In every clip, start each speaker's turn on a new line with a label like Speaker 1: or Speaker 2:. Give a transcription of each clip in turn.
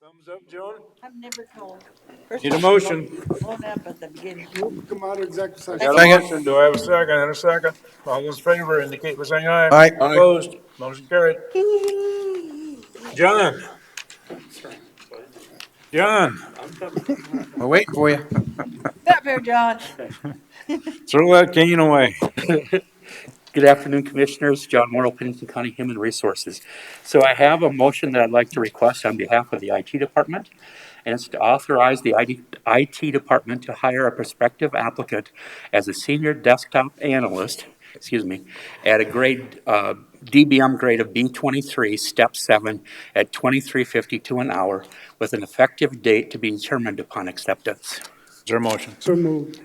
Speaker 1: Thumbs up, Joan.
Speaker 2: I'm never told.
Speaker 1: Need a motion.
Speaker 2: Hold up at the beginning.
Speaker 3: Move to come out of executive session.
Speaker 1: Got a
Speaker 4: Second.
Speaker 1: motion. Do I have a second and a second? All those in favor indicate by saying aye.
Speaker 4: Aye. Aye.
Speaker 1: Opposed? Motion carried. John. John,
Speaker 4: We're waiting for you.
Speaker 2: Up here, John.
Speaker 1: throw that cane away.
Speaker 5: Good afternoon, Commissioners. John Morrow, Pennington County Human Resources. So I have a motion that I'd like to request on behalf of the IT Department, and it's to authorize the ID IT Department to hire a prospective applicant as a senior desktop analyst, excuse me, at a grade, uh, DBM grade of B23, Step 7, at 2352 an hour, with an effective date to be determined upon acceptance.
Speaker 1: Is there a motion?
Speaker 3: So moved.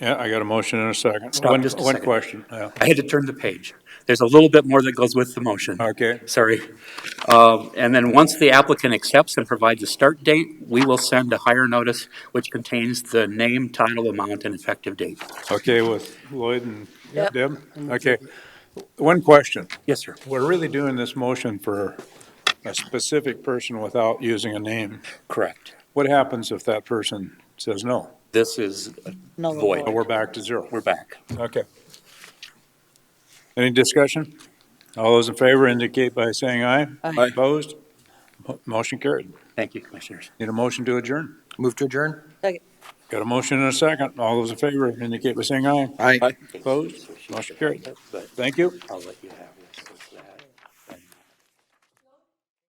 Speaker 1: Yeah, I got a motion and a second.
Speaker 5: Stop
Speaker 1: One-
Speaker 5: just a
Speaker 1: One
Speaker 5: second.
Speaker 1: question, yeah.
Speaker 5: I had to turn the page. There's a little bit more that goes with the motion.
Speaker 1: Okay.
Speaker 5: Sorry. Um, And then once the applicant accepts and provides a start date, we will send a hire notice which contains the name, title, amount, and effective date.
Speaker 1: Okay, with Lloyd and
Speaker 2: Yep.
Speaker 1: Deb? Okay. One question.
Speaker 5: Yes, sir.
Speaker 1: We're really doing this motion for a specific person without using a name.
Speaker 5: Correct.
Speaker 1: What happens if that person says no?
Speaker 5: This is
Speaker 2: No, no,
Speaker 5: void.
Speaker 1: Oh, We're back to zero.
Speaker 5: We're back.
Speaker 1: Okay. Any discussion? All those in favor indicate by saying aye.
Speaker 2: Aye.
Speaker 1: Opposed? Mo- Motion carried.
Speaker 5: Thank you, Commissioners.
Speaker 1: Need a motion to adjourn.
Speaker 4: Move to adjourn?
Speaker 1: Got a motion and a second. All those in favor indicate by saying aye.
Speaker 4: Aye.
Speaker 1: Opposed? Motion carried. Thank you.
Speaker 5: I'll let you have.